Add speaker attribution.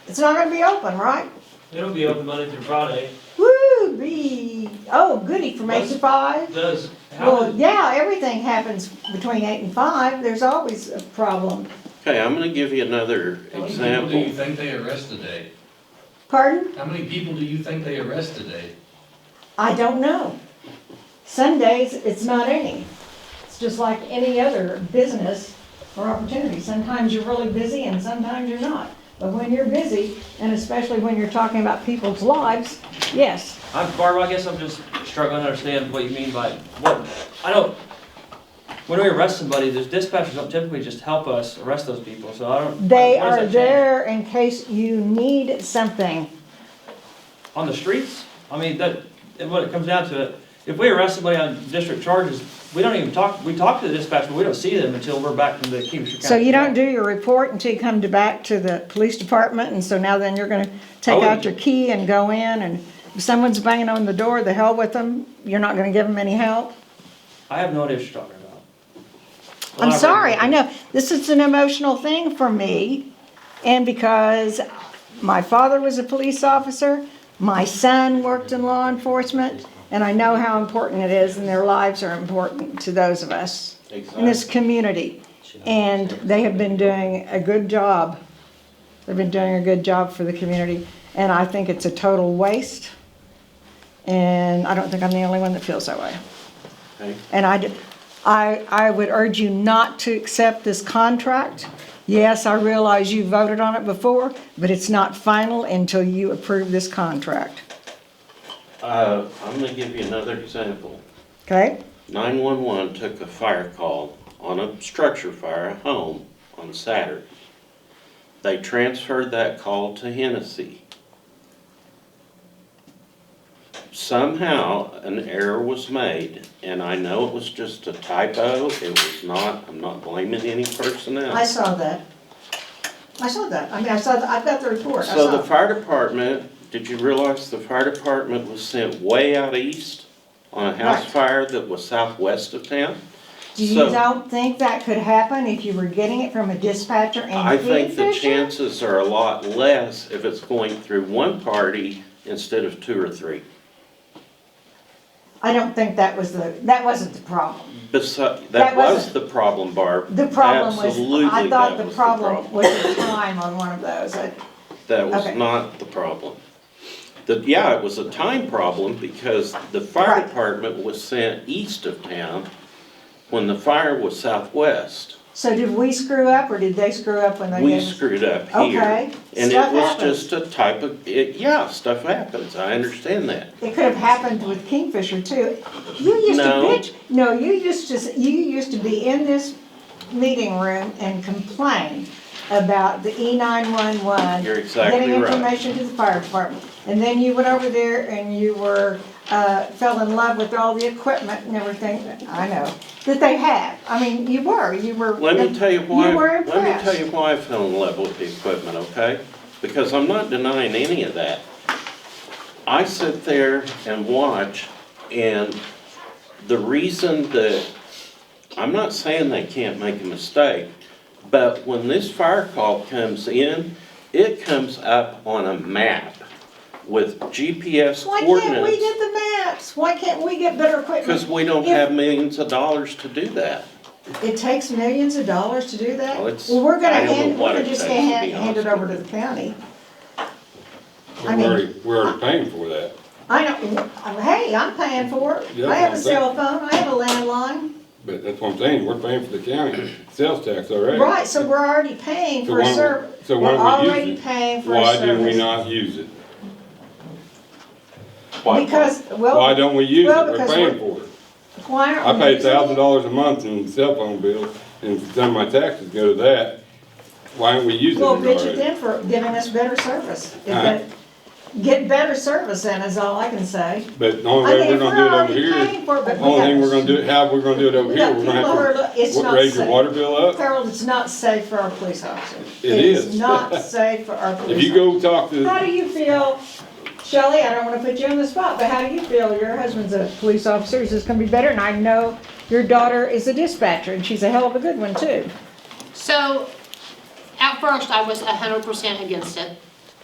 Speaker 1: It's not gonna be open, right?
Speaker 2: It'll be open Monday through Friday.
Speaker 1: Woo, be, oh, goody, from eight to five.
Speaker 2: Does, how,
Speaker 1: Well,
Speaker 2: does-
Speaker 1: yeah, everything happens between eight and five, there's always a problem.
Speaker 3: Okay, I'm gonna give you another
Speaker 4: How many people do you
Speaker 3: example.
Speaker 4: think they arrest today?
Speaker 1: Pardon?
Speaker 4: How many people do you think they arrest today?
Speaker 1: I don't know. Sundays, it's not any. It's just like any other business or opportunity. Sometimes you're really busy and sometimes you're not. But when you're busy, and especially when you're talking about people's lives, yes.
Speaker 2: I'm, Barbara, I guess I'm just struggling to understand what you mean by, what, I don't, when we arrest somebody, there's dispatchers don't typically just help us arrest those people, so I don't.
Speaker 1: They
Speaker 2: what does
Speaker 1: are
Speaker 2: that change?
Speaker 1: there in case you need something.
Speaker 2: On the streets? I mean, that, and when it comes down to it, if we arrest somebody on district charges, we don't even talk, we talk to the dispatcher, but we don't see them until we're back from the Kingfisher County.
Speaker 1: So you don't
Speaker 2: jail.
Speaker 1: do your report until you come to back to the police department, and so now then you're gonna take out your key and go in, and if someone's banging on the door, the hell with them, you're not gonna give them any help?
Speaker 2: I have no idea what you're talking about.
Speaker 1: I'm
Speaker 2: Elaborate.
Speaker 1: sorry, I know, this is an emotional thing for me, and because my father was a police officer, my son worked in law enforcement, and I know how important it is, and their lives are important to those of us in this community. And they have been doing a good job. They've been doing a good job for the community, and I think it's a total waste. And I don't think I'm the only one that feels that way.
Speaker 3: Okay.
Speaker 1: And I, d- I- I would urge you not to accept this contract. Yes, I realize you voted on it before, but it's not final until you approve this contract,
Speaker 3: Uh, I'm gonna give you another example.
Speaker 1: okay?
Speaker 3: Nine-one-one took a fire call on a structure fire, a home, on Saturday. They transferred that call to Hennessy. Somehow, an error was made, and I know it was just a typo, it was not, I'm not blaming any personnel.
Speaker 1: I saw that. I saw that. I mean, I saw, the- I've got the report. I
Speaker 3: So the
Speaker 1: saw.
Speaker 3: fire department, did you realize the fire department was sent way out east on a house
Speaker 1: Right.
Speaker 3: fire that was southwest of town?
Speaker 1: Do you
Speaker 3: so-
Speaker 1: don't think that could happen if you were getting it from a dispatcher
Speaker 3: I
Speaker 1: and
Speaker 3: think the
Speaker 1: Kingfisher?
Speaker 3: chances are a lot less if it's going through one party instead of two or three.
Speaker 1: I don't think that was the, that wasn't the problem.
Speaker 3: Besi
Speaker 1: That
Speaker 3: that was
Speaker 1: wasn't-
Speaker 3: the problem, Barb.
Speaker 1: The problem was, I
Speaker 3: Absolutely,
Speaker 1: thought
Speaker 3: that
Speaker 1: the
Speaker 3: was
Speaker 1: problem was the time on one of those. I-
Speaker 3: That was
Speaker 1: Okay.
Speaker 3: not the problem. The, yeah, it was a time problem because the fire
Speaker 1: Right.
Speaker 3: department was sent east of town when the fire was southwest.
Speaker 1: So did we screw up or did they screw up when they
Speaker 3: We
Speaker 1: gave us?
Speaker 3: screwed up here.
Speaker 1: Okay,
Speaker 3: And
Speaker 1: stuff
Speaker 3: it was
Speaker 1: happens.
Speaker 3: just a type of, it, yeah, stuff happens, I understand that.
Speaker 1: It could have happened with Kingfisher too. You used to
Speaker 3: No.
Speaker 1: bitch, no, you used to, you used to be in this meeting room and complain about the E nine-one-one.
Speaker 3: You're exactly
Speaker 1: Getting
Speaker 3: right.
Speaker 1: information to the fire department. And then you went over there and you were, uh, fell in love with all the equipment and everything, I know, that they have. I mean, you were, you were.
Speaker 3: Let me tell you why,
Speaker 1: You were
Speaker 3: let me
Speaker 1: impressed.
Speaker 3: tell you why I fell in love with the equipment, okay? Because I'm not denying any of that. I sit there and watch, and the reason that, I'm not saying they can't make a mistake, but when this fire call comes in, it comes up on a map with GPS coordinates.
Speaker 1: Why can't we get the maps? Why can't we get better equipment?
Speaker 3: Because we don't
Speaker 1: If-
Speaker 3: have millions of dollars to do that.
Speaker 1: It takes millions of dollars to do that?
Speaker 3: Well, it's-
Speaker 1: Well, we're gonna
Speaker 3: I don't know
Speaker 1: hand,
Speaker 3: what
Speaker 1: we're
Speaker 3: it
Speaker 1: just
Speaker 3: takes,
Speaker 1: gonna
Speaker 3: to
Speaker 1: hand,
Speaker 3: be
Speaker 1: hand it
Speaker 3: honest
Speaker 1: over to
Speaker 3: with
Speaker 1: the county. I
Speaker 5: We're
Speaker 1: mean-
Speaker 5: already, we're already paying for that.
Speaker 1: I know, hey, I'm paying for it.
Speaker 5: Yeah,
Speaker 1: I have a
Speaker 5: that's
Speaker 1: cell phone, I have a landline.
Speaker 5: But that's what I'm saying, we're paying for the county sales tax already.
Speaker 1: Right, so we're already paying
Speaker 5: So
Speaker 1: for a
Speaker 5: why don't we-
Speaker 1: service.
Speaker 5: so
Speaker 1: We're
Speaker 5: why don't we use
Speaker 1: already
Speaker 5: it?
Speaker 1: paying for a
Speaker 5: Why did we
Speaker 1: service.
Speaker 5: not use it?
Speaker 3: Why-
Speaker 1: Because,
Speaker 5: Why
Speaker 1: well,
Speaker 5: don't we use it?
Speaker 1: well,
Speaker 5: We're
Speaker 1: because
Speaker 5: paying
Speaker 1: we're-
Speaker 5: for it.
Speaker 1: why
Speaker 5: I
Speaker 1: aren't we
Speaker 5: pay
Speaker 1: using
Speaker 5: thousand
Speaker 1: it?
Speaker 5: dollars a month in cell phone bill, and some of my taxes go to that. Why aren't we using it
Speaker 1: Well, bitch at
Speaker 5: already?
Speaker 1: them for giving us better service. If
Speaker 5: All right.
Speaker 1: they- Get better service in is all I can say.
Speaker 5: But the
Speaker 1: I
Speaker 5: only way
Speaker 1: mean,
Speaker 5: we're
Speaker 1: if we're
Speaker 5: gonna do it over
Speaker 1: already
Speaker 5: here,
Speaker 1: paying for it, but we
Speaker 5: only
Speaker 1: got-
Speaker 5: thing we're gonna do, how we're gonna do it over
Speaker 1: We
Speaker 5: here,
Speaker 1: got
Speaker 5: we're gonna
Speaker 1: people who are
Speaker 5: have
Speaker 1: look- it's
Speaker 5: to
Speaker 1: not
Speaker 5: wa- raise your
Speaker 1: safe.
Speaker 5: water bill up.
Speaker 1: Harold, it's not safe for our police officers.
Speaker 5: It
Speaker 1: It's
Speaker 5: is.
Speaker 1: not safe for our police.
Speaker 5: If you go talk to.
Speaker 1: How do you feel, Shelley, I don't wanna put you on the spot, but how do you feel? Your husband's a police officer, is this gonna be better? And I know your daughter is a dispatcher, and she's a hell of a good one too.
Speaker 6: So, at first, I was hundred percent against it.